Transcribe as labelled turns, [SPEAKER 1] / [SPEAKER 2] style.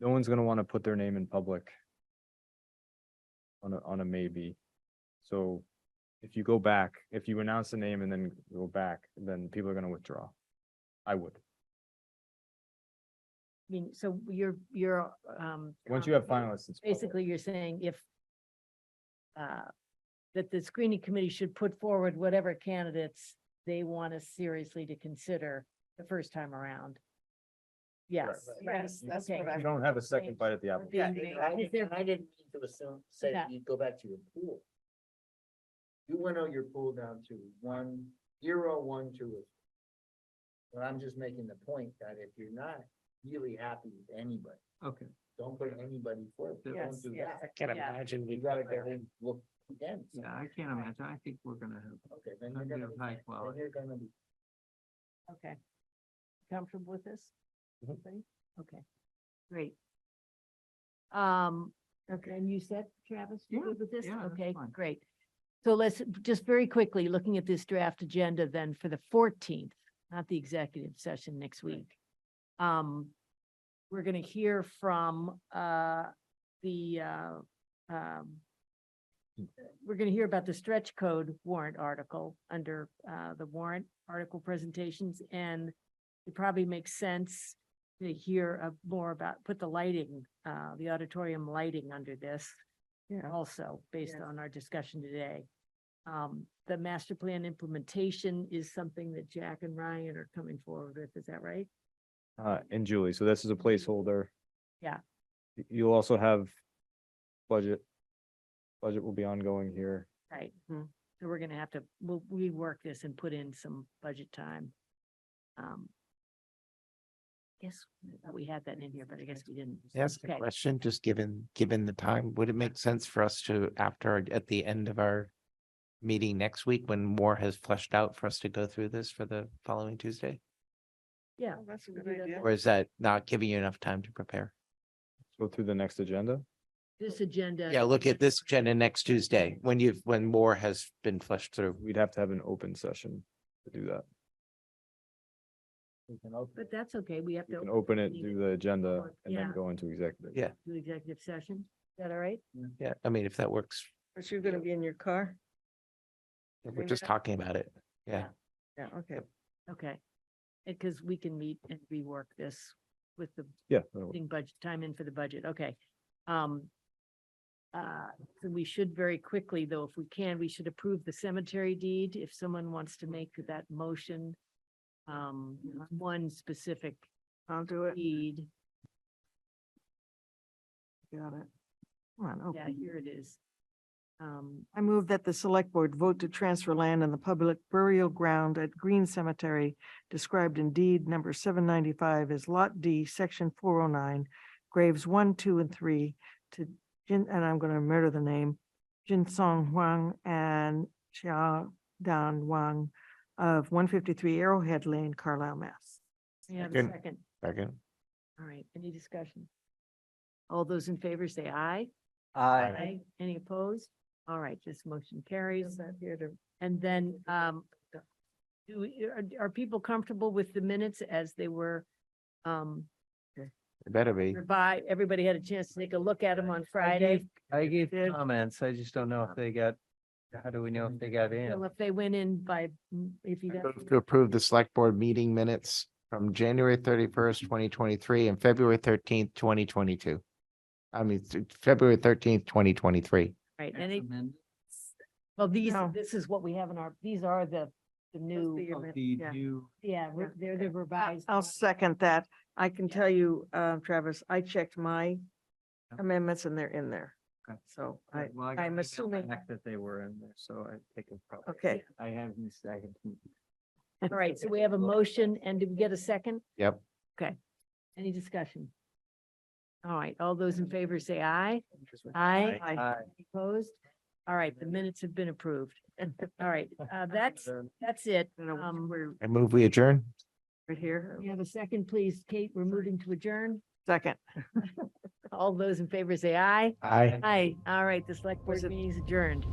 [SPEAKER 1] no one's gonna wanna put their name in public. On a, on a maybe. So if you go back, if you announce the name and then go back, then people are gonna withdraw. I would.
[SPEAKER 2] I mean, so you're, you're, um.
[SPEAKER 1] Once you have
[SPEAKER 2] com-
[SPEAKER 1] finalists, it's public.
[SPEAKER 2] Basically, you're saying if uh, that the screening committee should put forward whatever candidates they want us seriously to consider the first time around. Yes.
[SPEAKER 3] right.
[SPEAKER 2] right,
[SPEAKER 3] Yes, that's
[SPEAKER 2] okay.
[SPEAKER 3] what I-
[SPEAKER 1] You don't have a second bite at the apple.
[SPEAKER 3] Yeah,
[SPEAKER 2] Being
[SPEAKER 3] and
[SPEAKER 2] made.
[SPEAKER 3] I
[SPEAKER 2] Is
[SPEAKER 3] didn't,
[SPEAKER 2] there-
[SPEAKER 3] and I didn't mean to assume, say
[SPEAKER 2] Yeah.
[SPEAKER 3] you go back to your pool. You went out your pool down to one, zero, one, two. or- But I'm just making the point that if you're not really happy with anybody,
[SPEAKER 4] Okay.
[SPEAKER 3] don't put anybody forward.
[SPEAKER 2] Yes,
[SPEAKER 3] Don't do
[SPEAKER 2] yeah.
[SPEAKER 3] that.
[SPEAKER 4] I can't
[SPEAKER 2] Yeah.
[SPEAKER 4] imagine.
[SPEAKER 3] You gotta go and look again.
[SPEAKER 4] Yeah, I can't imagine. I think we're gonna have,
[SPEAKER 3] Okay, then
[SPEAKER 4] I'm
[SPEAKER 3] you're gonna, be-
[SPEAKER 4] gonna high
[SPEAKER 3] then
[SPEAKER 4] quality.
[SPEAKER 3] you're gonna be.
[SPEAKER 2] Okay. Comfortable with this?
[SPEAKER 1] Mhm.
[SPEAKER 2] Everybody? Okay, great. Um, okay, and you said, Travis, you
[SPEAKER 4] Yeah,
[SPEAKER 2] good with this?
[SPEAKER 4] yeah, that's
[SPEAKER 2] Okay,
[SPEAKER 4] fine.
[SPEAKER 2] great. So let's, just very quickly, looking at this draft agenda then for the fourteenth, not the executive session next week. Um, we're gonna hear from, uh, the, uh, um, we're gonna hear about the stretch code warrant article under, uh, the warrant article presentations and it probably makes sense to hear uh, more about, put the lighting, uh, the auditorium lighting under this
[SPEAKER 3] Yeah.
[SPEAKER 2] also, based
[SPEAKER 3] Yes.
[SPEAKER 2] on our discussion today. Um, the master plan implementation is something that Jack and Ryan are coming forward with, is that right?
[SPEAKER 1] Uh, and Julie, so this is a placeholder.
[SPEAKER 2] Mm-hmm. Yeah.
[SPEAKER 1] Y- You'll also have budget. Budget will be ongoing here.
[SPEAKER 2] Right. Mm-hmm. So we're gonna have to, we'll rework this and put in some budget time. Um. Yes, we had that in here, but I guess we didn't.
[SPEAKER 5] Ask a
[SPEAKER 2] Okay.
[SPEAKER 5] question, just given, given the time, would it make sense for us to, after, our- at the end of our meeting next week, when more has fleshed out for us to go through this for the following Tuesday?
[SPEAKER 2] Yeah.
[SPEAKER 6] Oh,
[SPEAKER 3] That's
[SPEAKER 2] we do that then.
[SPEAKER 5] Or is that not giving you enough time to prepare?
[SPEAKER 1] Go through the next agenda.
[SPEAKER 2] This agenda.
[SPEAKER 5] Yeah, look at this agenda next Tuesday, when you've, when more has been fleshed through.
[SPEAKER 1] We'd have to have an open session to do that.
[SPEAKER 3] We can open
[SPEAKER 2] But that's okay, we have
[SPEAKER 1] You
[SPEAKER 2] to
[SPEAKER 1] can open it,
[SPEAKER 2] meeting
[SPEAKER 1] do the agenda
[SPEAKER 2] before-
[SPEAKER 1] and then
[SPEAKER 2] yeah.
[SPEAKER 1] go into executive.
[SPEAKER 5] Yeah.
[SPEAKER 2] do executive session, is that all right?
[SPEAKER 5] Yeah, I mean, if that works,
[SPEAKER 6] But you're gonna be in your car?
[SPEAKER 5] if we're just talking about it. Yeah,
[SPEAKER 6] Yeah, okay.
[SPEAKER 2] Okay. Because we can meet and rework this with the
[SPEAKER 1] Yeah. that'll work.
[SPEAKER 2] putting budget, time in for the budget, okay. Um. Uh, so we should very quickly, though, if we can, we should approve the cemetery deed, if someone wants to make that motion. Um, one specific
[SPEAKER 6] I'll do it.
[SPEAKER 2] deed,
[SPEAKER 6] Got it. Come on,
[SPEAKER 2] yeah,
[SPEAKER 6] okay.
[SPEAKER 2] here it is. Um,
[SPEAKER 6] I move that the select board vote to transfer land in the public burial ground at Green Cemetery described in deed number seven ninety-five as Lot D, section four oh nine, graves one, two, and three to Jin, and I'm gonna murder the name, Jin Song Huang and Xia Dan Wang of one fifty-three Arrowhead Lane, Carlisle, Mass.
[SPEAKER 2] may I have a
[SPEAKER 5] Second.
[SPEAKER 2] second,
[SPEAKER 5] second.
[SPEAKER 2] all right, any discussion? All those in favor say aye.
[SPEAKER 4] Uh,
[SPEAKER 3] Aye.
[SPEAKER 2] Aye. Any opposed? All right, this motion carries.
[SPEAKER 6] I'm here to
[SPEAKER 2] And then, um, do, we- are, are people comfortable with the minutes as they were? Um,
[SPEAKER 5] It better be.
[SPEAKER 2] revi- everybody had a chance to take a look at them on Friday.
[SPEAKER 4] I gave
[SPEAKER 6] did.
[SPEAKER 4] comments. I just don't know if they got, how do we know if they got
[SPEAKER 2] Well,
[SPEAKER 4] in?
[SPEAKER 2] if they went in by, if you got,
[SPEAKER 5] Move To approve the select board meeting minutes from January thirty-first, twenty twenty-three and February thirteenth, twenty twenty-two. I mean, th- February thirteenth, twenty twenty-three.
[SPEAKER 2] right,
[SPEAKER 4] Ex
[SPEAKER 2] and it,
[SPEAKER 4] amend-
[SPEAKER 2] well, these,
[SPEAKER 6] No.
[SPEAKER 2] this is what we have in our, these are the, the new,
[SPEAKER 6] the-
[SPEAKER 4] of
[SPEAKER 6] amend-
[SPEAKER 4] The
[SPEAKER 6] yeah.
[SPEAKER 4] new,
[SPEAKER 2] yeah, re-
[SPEAKER 6] yeah.
[SPEAKER 2] they're the
[SPEAKER 6] I-
[SPEAKER 2] revised.
[SPEAKER 6] I'll
[SPEAKER 2] ones.
[SPEAKER 6] second that. I can
[SPEAKER 2] Yeah.
[SPEAKER 6] tell you, uh, Travis, I checked my
[SPEAKER 4] Yeah.
[SPEAKER 6] amendments and they're in there.
[SPEAKER 4] Okay.
[SPEAKER 6] So I,
[SPEAKER 4] well, I got
[SPEAKER 6] I'm
[SPEAKER 4] email
[SPEAKER 6] assuming,
[SPEAKER 4] back That they were in there, so I think it's probably.
[SPEAKER 6] okay,
[SPEAKER 4] I haven't, I haven't.
[SPEAKER 2] All right, so we have a motion and did we get a second?
[SPEAKER 5] Yep.
[SPEAKER 2] Any discussion? All right, all those in favor say aye. Aye.
[SPEAKER 6] Aye.
[SPEAKER 2] Opposed? All right, the minutes have been approved. All right, uh, that's, that's it.
[SPEAKER 6] I don't know,
[SPEAKER 2] Um, we're,
[SPEAKER 5] I move we adjourn.
[SPEAKER 6] right here,
[SPEAKER 2] we have a second, please. Kate, we're moving to adjourn.
[SPEAKER 6] second.
[SPEAKER 2] All those in favor say aye.
[SPEAKER 5] Aye.
[SPEAKER 2] Aye. All right, the select board
[SPEAKER 6] Was it-
[SPEAKER 2] meeting is adjourned.